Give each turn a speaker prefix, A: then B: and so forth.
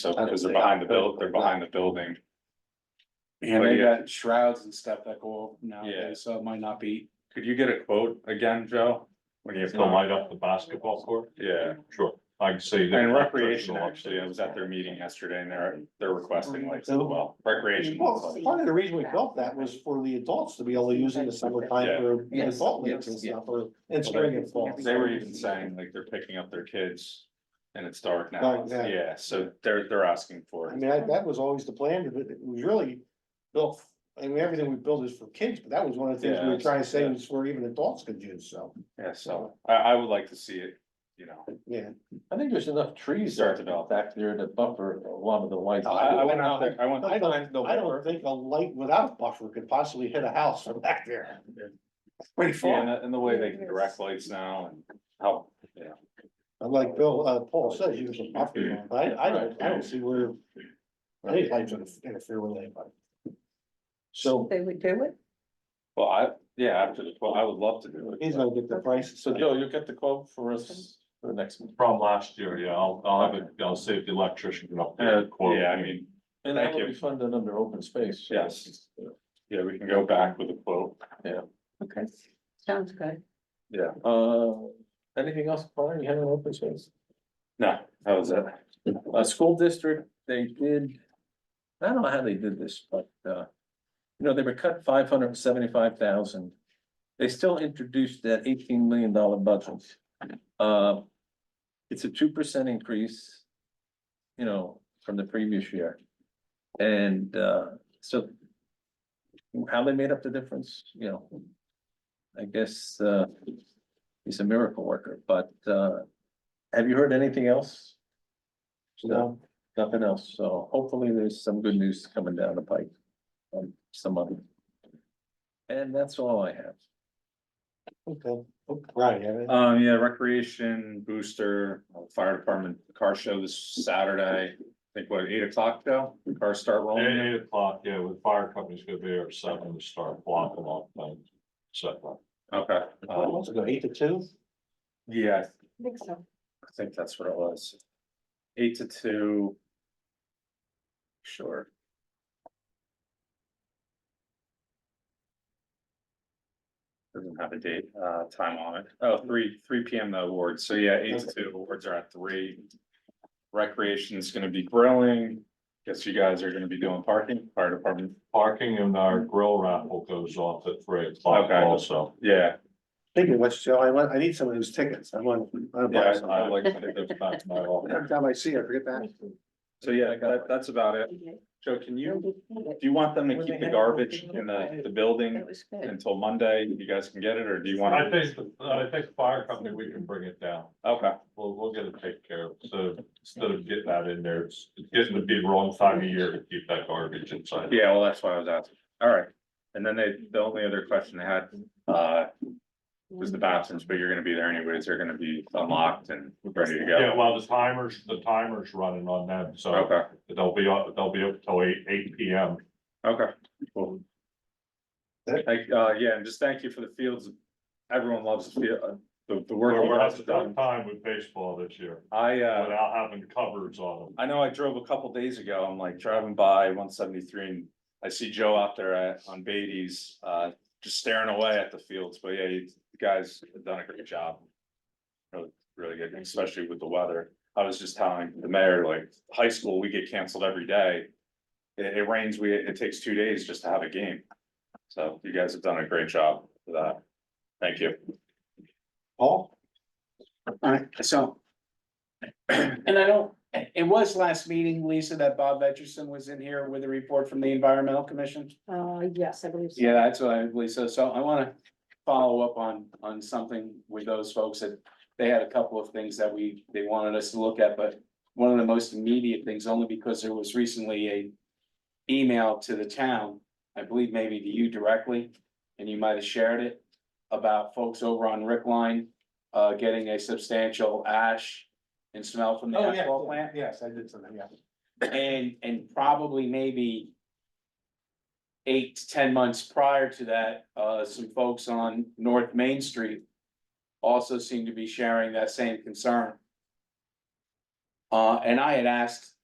A: so, because they're behind the build, they're behind the building.
B: And
A: But
B: they
A: yeah.
B: got shrouds and stuff that go up
A: Yeah.
B: nowadays, so it might not be.
A: Could you get a quote again, Joe? When you have.
C: Gonna light up the basketball court?
A: Yeah,
C: Sure, I can see. that.
A: and recreation, actually, I was at their meeting yesterday and they're, they're requesting
B: Oh,
A: lights as well, recreation.
D: Well,
E: part of the reason we built that was for the adults to be able to use in the summertime for
D: Yes,
E: adult leagues and
D: yes, yeah.
E: stuff, or in spring and fall.
A: They were even saying like they're picking up their kids and it's dark now,
E: Dark
B: Oh,
E: now.
A: yeah, so they're, they're asking for
E: I
A: it.
E: mean, I- that was always the plan, but it was really built, I mean, everything we built is for kids, but that was one of the things we were
A: Yeah.
E: trying to say was for even adults could use, so,
A: Yeah, so I, I would like to see it, you know,
E: yeah.
D: I think there's enough trees
A: Start
D: there
A: to
D: to
A: develop.
D: develop back there to buffer a lot uh, of the lights.
A: I, I went out there, I went.
E: I don't, I don't think a light without a buffer could possibly hit a house from back there. Pretty
A: Yeah, and
E: far,
A: the- and the way they can direct lights now and how,
E: And like Bill, uh, Paul says, use a buffer, I, I don't, I don't see where. Any lights would interfere with anybody. So
D: They would do it?
A: well, I, yeah, after the, well, I would love to do
E: he's
A: it.
E: gonna get the price,
D: So Joe, you'll get the quote for us for the next meeting.
C: From last year, yeah, I'll, I'll have it, I'll save the electrician up there.
A: but- Uh, Yeah, I mean,
D: And that
A: Thank
D: will
A: you.
D: be funded under open space.
A: Yes. yeah, we can go back with a quote.
D: Okay, sounds good.
A: Yeah.
D: Uh, anything else, Connor? You have an open space?
A: No, that was it.
D: Uh, school district, they did, I don't know how they did this, but, uh, you know, they were cut five hundred and seventy-five thousand. They still introduced that eighteen million dollar budget. Uh, it's a two percent increase, you know, from the previous year. And, uh, so how they made up the difference, you know, I guess, uh, he's a miracle worker, but, uh, have you heard anything else? No, nothing else. So hopefully there's some good news coming down the pike. on some other. And that's all I have.
E: okay, Oh, right, yeah.
A: Um, yeah, recreation booster, uh, fire department car show this Saturday, I think what, eight o'clock though, cars start
C: At
A: rolling.
C: eight o'clock, yeah, with fire companies gonna be there at seven to start blocking off things. So,
A: Okay,
E: Oh,
A: um,
E: what's it go, eight to two?
A: yeah,
F: I think so.
A: I think that's what it was. Eight to two. Sure. Doesn't have a date, uh, time on it. Oh, three, three P M the awards. So yeah, eight to two, awards are at three. Recreation is gonna be grilling. Guess you guys are gonna be doing parking, fire department.
C: Parking and our grill raffle goes off at three o'clock
A: Okay.
C: also.
A: Yeah,
E: Thinking of which, Joe, I want, I need some of those tickets, I want. I wanna buy
A: yeah,
E: some.
A: I I like.
C: That's back to my office.
E: Every time I see it, I forget that.
A: So yeah, that, that's about it. Joe, can you, do you want them to keep the garbage in the, the building
D: That was
A: until Monday? You guys can get it, or do you want?
C: I think, the- I think the fire company, we can bring it down.
A: Okay,
C: We'll, we'll get it taken care of. So instead of getting that in there, it's, it's getting to be the wrong time of year to keep that garbage inside.
A: yeah, well, that's why I was asking. All right. And then they, the only other question they had, uh, was the bathrooms, but you're gonna be there anyways. They're gonna be unlocked and ready to
C: Yeah,
A: go.
C: well, the timers, the timer's running on them, so
A: Okay,
C: they'll be up, they'll be up till eight, eight P M.
A: okay, cool. Thank, uh, yeah, and just thank you for the fields. Everyone loves the field, uh, the, the work.
C: We're,
A: you
C: we're
A: guys
C: having a
A: have done.
C: tough time with baseball this year
A: I, uh.
C: without having covers on them.
A: I know I drove a couple days ago, I'm like driving by one seventy-three and I see Joe out there at, on Beatty's, uh, just staring away at the fields, but yeah, you guys have done a great job. Really, really good, especially with the weather. I was just telling the mayor, like, high school, we get canceled every day. It, it rains, we, it takes two days just to have a game. So you guys have done a great job for that. Thank you.
E: Paul?
B: All right, so. And I don't, it was last meeting, Lisa, that Bob Etchison was in here with a report from the environmental commission.
F: Uh, yes, I believe so.
B: Yeah, that's what I, Lisa, so I wanna follow up on, on something with those folks that. They had a couple of things that we, they wanted us to look at, but one of the most immediate things, only because there was recently a. Email to the town, I believe maybe to you directly, and you might have shared it. About folks over on Rick Line, uh, getting a substantial ash and smell
E: Oh,
B: from the asphalt plant.
E: yes, I did something, yeah.
B: And, and probably maybe. Eight to ten months prior to that, uh, some folks on North Main Street. Also seem to be sharing that same concern. Uh, and I had asked